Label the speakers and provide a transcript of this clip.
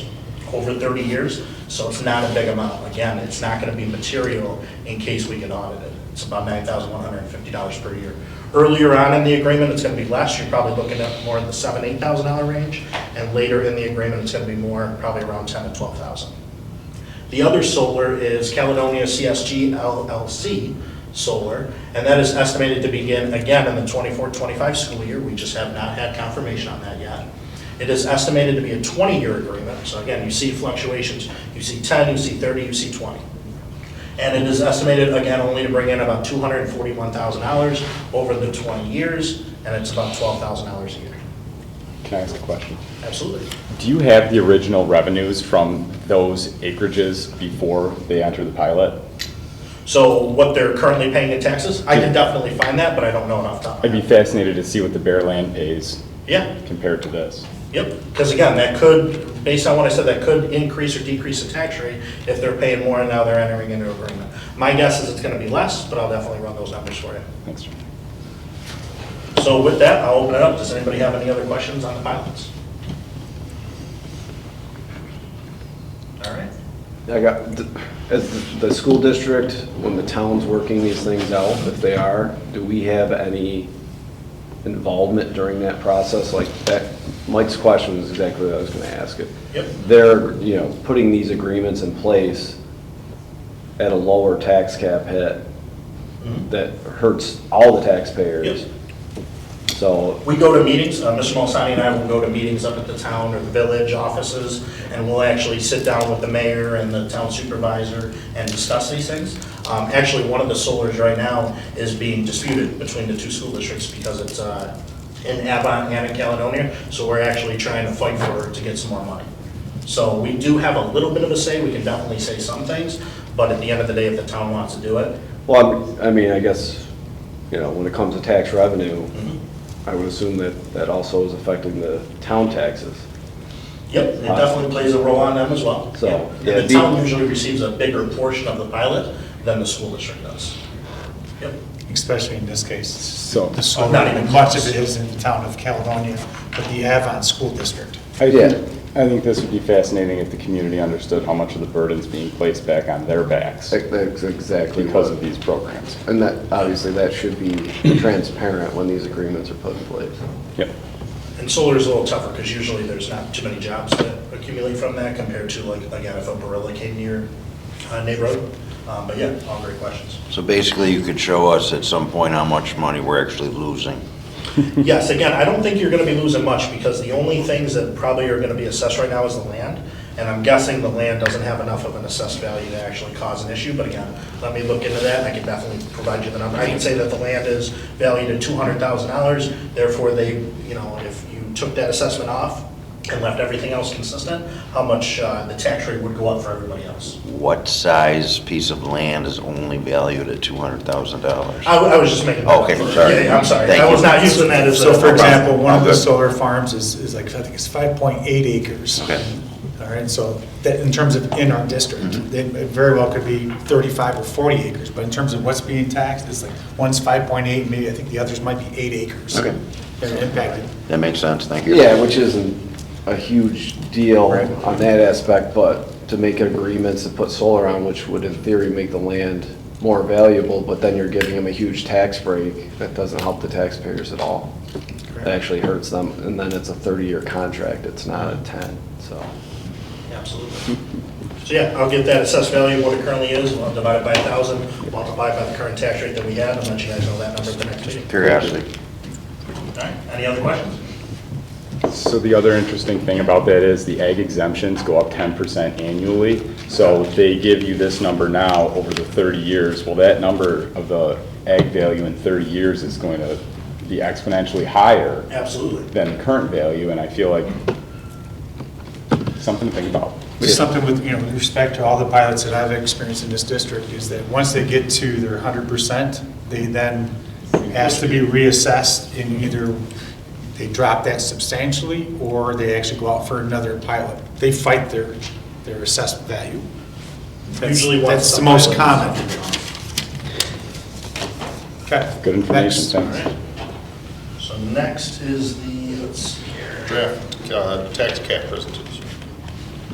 Speaker 1: over 30 years, so it's not a big amount. Again, it's not going to be material in case we get audited. It's about $9,150 per year. Earlier on in the agreement, it's going to be less, you're probably looking at more in the $7,000, $8,000 range, and later in the agreement, it's going to be more, probably around 10 to 12,000. The other solar is Caledonia CSG LLC Solar, and that is estimated to begin again in the 24-25 school year. We just have not had confirmation on that yet. It is estimated to be a 20-year agreement, so again, you see fluctuations. You see 10, you see 30, you see 20. And it is estimated, again, only to bring in about $241,000 over the 20 years, and it's about $12,000 a year.
Speaker 2: Can I ask a question?
Speaker 1: Absolutely.
Speaker 2: Do you have the original revenues from those acreages before they enter the pilot?
Speaker 1: So what they're currently paying in taxes, I can definitely find that, but I don't know enough. top of my
Speaker 2: I'd be
Speaker 1: head.
Speaker 2: fascinated to see what the bare land pays
Speaker 1: Yeah,
Speaker 2: compared to this.
Speaker 1: Yep, because again, that could, based on what I said, that could increase or decrease the tax rate if they're paying more and now they're entering into agreement. My guess is it's gonna be less, but I'll definitely run those numbers for you.
Speaker 2: Thanks, John.
Speaker 1: So with that, I'll open it up. Does anybody have any other questions on the pilots? All right.
Speaker 3: I got, as the the school district, when the town's working these things out, if they are, do we have any involvement during that process? Like, that, Mike's question is exactly what I was gonna ask. If
Speaker 1: Yep.
Speaker 3: They're, you know, putting these agreements in place at a lower tax cap hit that hurts all the taxpayers.
Speaker 1: Mm-hmm. Yep.
Speaker 3: So,
Speaker 1: We go to meetings, uh, Mr. Malsani and I will go to meetings up at the town or the village offices, and we'll actually sit down with the mayor and the town supervisor and discuss these things. Um, Actually, one of the solars right now is being disputed between the two school districts because it's uh, in Avon and in Caledonia, so we're actually trying to fight for it to get some more money. So we do have a little bit of a say, we can definitely say some things, but at the end of the day, if the town wants to do it,
Speaker 3: well, I'm- I mean, I guess, you know, when it comes to tax revenue, I would assume that that also is affecting the town taxes.
Speaker 1: Yep, it definitely plays a role on them as well.
Speaker 3: So,
Speaker 1: Yeah.
Speaker 3: yeah,
Speaker 1: And the
Speaker 3: be-
Speaker 1: town usually receives a bigger portion of the pilot than the school district does. Yep,
Speaker 4: especially in this case.
Speaker 2: So-
Speaker 4: The solar,
Speaker 1: Not even
Speaker 4: much
Speaker 1: close.
Speaker 4: of it is in the town of Caledonia, but the Avon School District.
Speaker 2: I
Speaker 3: Yeah.
Speaker 2: think, I think this would be fascinating if the community understood how much of the burden's being placed back on their backs
Speaker 3: That's exactly
Speaker 2: because
Speaker 3: what,
Speaker 2: of these programs.
Speaker 3: and that, obviously, that should be transparent when these agreements are put in place.
Speaker 2: Yep.
Speaker 1: and solar is a little tougher because usually there's not too many jobs that accumulate from that compared to like, again, if a Barilla came to your uh, neighborhood. Um, But yeah, all great questions.
Speaker 5: So basically, you could show us at some point how much money we're actually losing.
Speaker 1: Yes, again, I don't think you're gonna be losing much, because the only things that probably are gonna be assessed right now is the land, and I'm guessing the land doesn't have enough of an assessed value to actually cause an issue, but again, let me look into that, and I can definitely provide you the number. I can say that the land is valued at two hundred thousand dollars, therefore they, you know, if you took that assessment off and left everything else consistent, how much, uh, the tax rate would go up for everybody else.
Speaker 5: What size piece of land is only valued at $200,000?
Speaker 3: Uh,
Speaker 1: I, wa- I was just making.
Speaker 5: Okay, sorry.
Speaker 1: Yeah, yeah, I'm sorry,
Speaker 5: Thank
Speaker 1: I was
Speaker 5: you.
Speaker 1: not using that as a.
Speaker 4: So for example, one of
Speaker 5: Oh,
Speaker 4: the
Speaker 5: good.
Speaker 4: solar farms is, is like, I think it's 5.8 acres.
Speaker 5: Okay.
Speaker 4: All right, so that, in terms of in our district, it it very well could be 35 or 40 acres, but in terms of what's being taxed, it's like, one's 5.8, maybe I think the others might be eight acres.
Speaker 5: Okay.
Speaker 4: They're impacted.
Speaker 5: That makes sense, thank you.
Speaker 3: Yeah, which isn't a huge deal
Speaker 4: Right.
Speaker 3: on that aspect, but to make agreements to put solar on, which would in theory make the land more valuable, but then you're giving them a huge tax break, that doesn't help the taxpayers at all. It
Speaker 4: Correct.
Speaker 3: actually hurts them, and then it's a 30-year contract, it's not a 10, so.
Speaker 1: Absolutely. So yeah, I'll get that assessed value, what it currently is, we'll divide it by a thousand, multiply it by the current tax rate that we had, and let you guys know that number at the next meeting.
Speaker 5: Curiosity.
Speaker 1: All right, any other questions?
Speaker 2: So the other interesting thing about that is the ag exemptions go up ten percent annually. So they give you this number now over the thirty years. Well, that number of the ag value in thirty years is going to be exponentially higher
Speaker 1: Absolutely.
Speaker 2: than the current value, and I feel like something to think about.
Speaker 4: Just something with, you know, with respect to all the pilots that I've experienced in this district is that once they get to their hundred percent, they then ask to be reassessed and either they drop that substantially or they actually go out for another pilot. They fight their, their assessed value. That's-
Speaker 1: Usually once
Speaker 4: That's the
Speaker 1: a
Speaker 4: most common.
Speaker 1: pilot-
Speaker 4: Okay.
Speaker 2: Good information,
Speaker 4: next.
Speaker 2: thanks.
Speaker 1: All right. So next is the, let's see here.
Speaker 6: draft uh, tax cap present-